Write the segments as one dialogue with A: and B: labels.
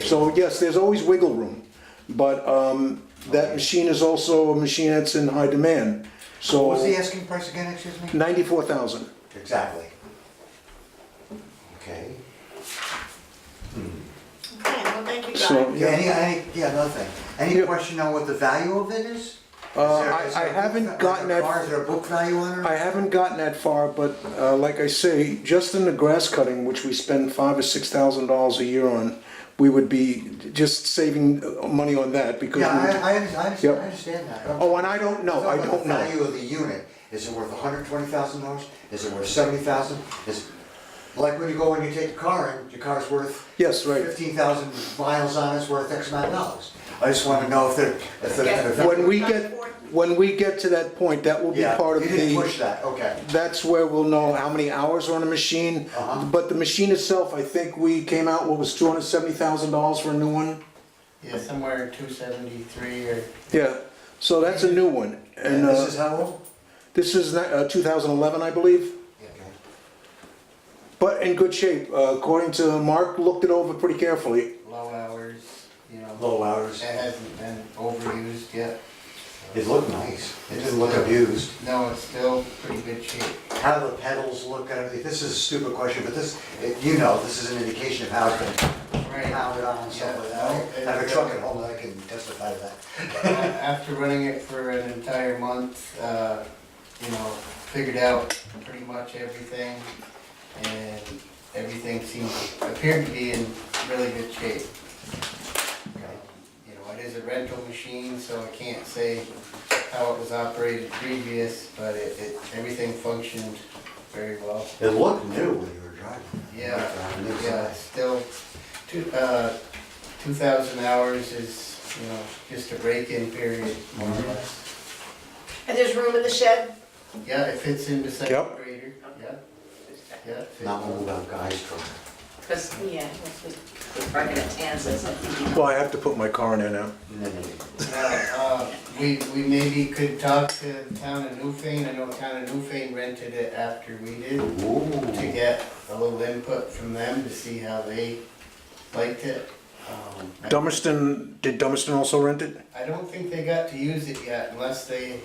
A: So yes, there's always wiggle room, but um, that machine is also a machine that's in high demand.
B: What was the
A: So
B: asking price again, excuse me?
A: ninety-four thousand.
B: Exactly. Okay.
C: Okay, well, thank you
A: So-
C: guys.
B: Yeah, any, any, yeah, another thing. Any
A: Yeah.
B: question on what the value of it is?
A: Uh,
B: Is there-
A: I-
B: is there
A: I
B: a book
A: haven't
B: va- like
A: gotten
B: a
A: that-
B: car, Is there a book value on
A: I
B: it?
A: haven't gotten that far, but uh, like I say, just in the grass cutting, which we spend five or six thousand dollars a year on, we would be just saving uh, money on that because.
B: Yeah,
A: we would-
B: I, I under- I understand,
A: Yep.
B: I understand that.
A: Oh, and I don't know, I don't
B: The value
A: know.
B: of the unit, is it worth hundred twenty thousand dollars? Is it worth seventy thousand? Is, like when you go and you take the car in, your car's worth
A: Yes, right.
B: fifteen thousand miles on it's worth X amount of dollars. I just wanna know if they're, if they're. if they're-
A: When we get, when we get to that point, that will be
B: Yeah,
A: part of
B: you
A: the.
B: didn't push that, okay.
A: That's where we'll know how many hours are on a machine.
B: Uh-huh.
A: But the machine itself, I think we came out, what was two hundred seventy thousand dollars for a new one?
D: Yeah, somewhere two seventy-three or,
A: Yeah, so that's a new one. And
B: And this
A: uh,
B: is how old?
A: this is uh, two thousand eleven, I believe,
B: Okay.
A: but in good shape. Uh, According to Mark, looked it over pretty carefully.
D: low hours, you know,
B: Low
D: it
B: hours.
D: hasn't been overused yet.
B: It looked nice. It didn't look abused.
D: No, it's still pretty good shape.
B: How do the pedals look out of the, this is a stupid question, but this, it- you know, this is an indication of how it's been
D: Right.
B: pounded on and stuff like that. I have a truck at home that I can testify to
D: Uh,
B: that.
D: After running it for an entire month, uh, you know, figured out pretty much everything. And everything seemed, appeared to be in really good shape. You know, it is a rental machine, so I can't say how it was operated previous, but it, it, everything functioned very well.
B: It looked new when you were driving.
D: Yeah,
B: Around the new
D: yeah,
B: side.
D: still, two, uh, two thousand hours is, you know, just a break-in period, more or less.
C: And there's room in the shed?
D: Yeah, it fits into second
A: Yep.
D: grader, yeah, yeah. it fits.
B: Not one about guys truck.
C: Because, yeah, that's what, right in the hands, that's something.
A: Well, I have to put my car in there now.
B: No, no, no.
D: Now, uh, we, we maybe could talk to Town of Newfane, I know Town of Newfane rented it after we did, to
B: Ooh.
D: get a little input from them to see how they liked it. Um, I-
A: Dummerston, did Dummerston also rent it?
D: I don't think they got to use it yet unless they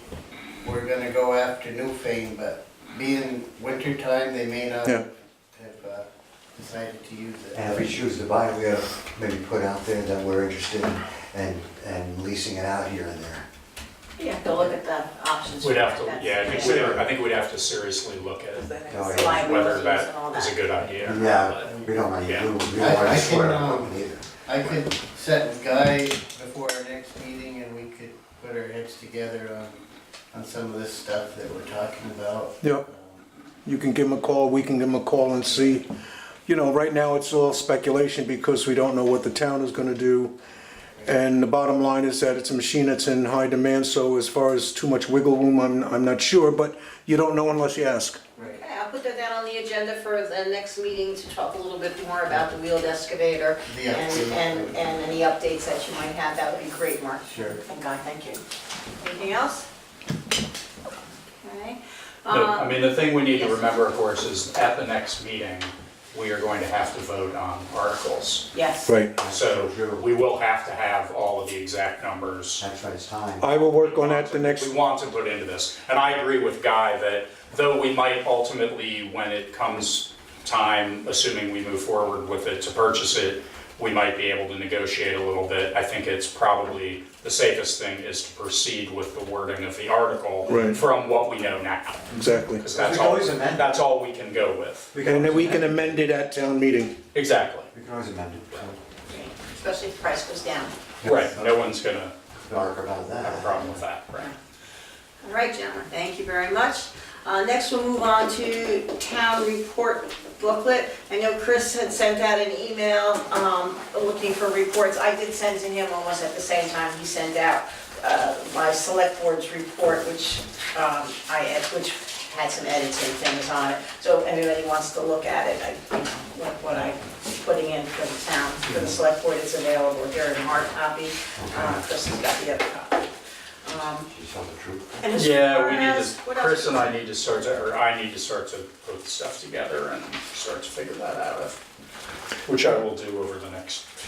D: were gonna go after Newfane, but being winter time, they may not
A: Yeah.
D: have uh, decided to use it.
B: And if we choose to buy it, we gotta maybe put out there that we're interested in and, and leasing it out here and there.
C: Yeah, go look at the options.
E: We'd have to,
C: That's-
E: yeah, I think, we'd- I think we'd have to seriously look
C: Because
E: at
C: then
B: Oh,
C: it's
B: yeah.
E: whether
C: liabilities and all
E: that is a
C: that.
E: good idea. or not,
B: Yeah,
E: but-
B: we don't want to,
E: Yeah.
B: we
D: I-
B: don't want
D: I
B: to
D: can,
B: swear
D: um,
B: on it either.
D: I could set with Guy before our next meeting and we could put our heads together on, on some of this stuff that we're talking about.
A: Yeah. You can give him a call, we can give him a call and see. You know, right now it's all speculation because we don't know what the town is gonna do. And the bottom line is that it's a machine that's in high demand, so as far as too much wiggle room, I'm, I'm not sure, but you don't know unless you ask.
D: Right.
C: Okay, I'll put that down on the agenda for the next meeting to talk a little bit more about the wheeled excavator
D: The
C: and,
D: update.
C: and, and any updates that you might have, that would be great, Mark.
D: Sure.
C: Thank God, thank you. Anything else? Okay.
E: The-
C: um,
E: I mean, the thing we need to
C: yes.
E: remember, of course, is at the next meeting, we are going to have to vote on articles.
C: Yes.
A: Right.
E: So we will have to have all of the exact numbers.
B: That's right, it's time.
A: I will work on that the next,
E: We want to put into this. And I agree with Guy that though we might ultimately, when it comes time, assuming we move forward with it to purchase it, we might be able to negotiate a little bit. I think it's probably the safest thing is to proceed with the wording of the article
A: Right.
E: from what we know now.
A: exactly.
B: We
E: Because that's
B: can
E: all,
B: always amend.
E: that's all we can go with.
A: And then we can amend it at town meeting.
E: Exactly.
B: We can always amend it, so,
C: Especially if the price goes down.
E: Right, no one's gonna
B: dark about that.
E: have a problem with that, right?
C: All right, gentlemen, thank you very much. Uh, Next, we'll move on to town report booklet. I know Chris had sent out an email um, looking for reports. I did send to him almost at the same time he sent out uh, my select board's report, which um, I, ed- which had some edits and things on it. So if anybody wants to look at it, I- what what I'm putting in for the town, for the select board, it's available here in hard copy. Uh, Chris has got the other copy. Um,
B: She told the truth.
C: and as
E: Yeah,
C: far
E: we need
C: as-
E: to,
C: what else
E: Chris
C: is
E: and
C: there?
E: I need to start to, or I need to start to put stuff together and start to figure that out. Which I will do over the next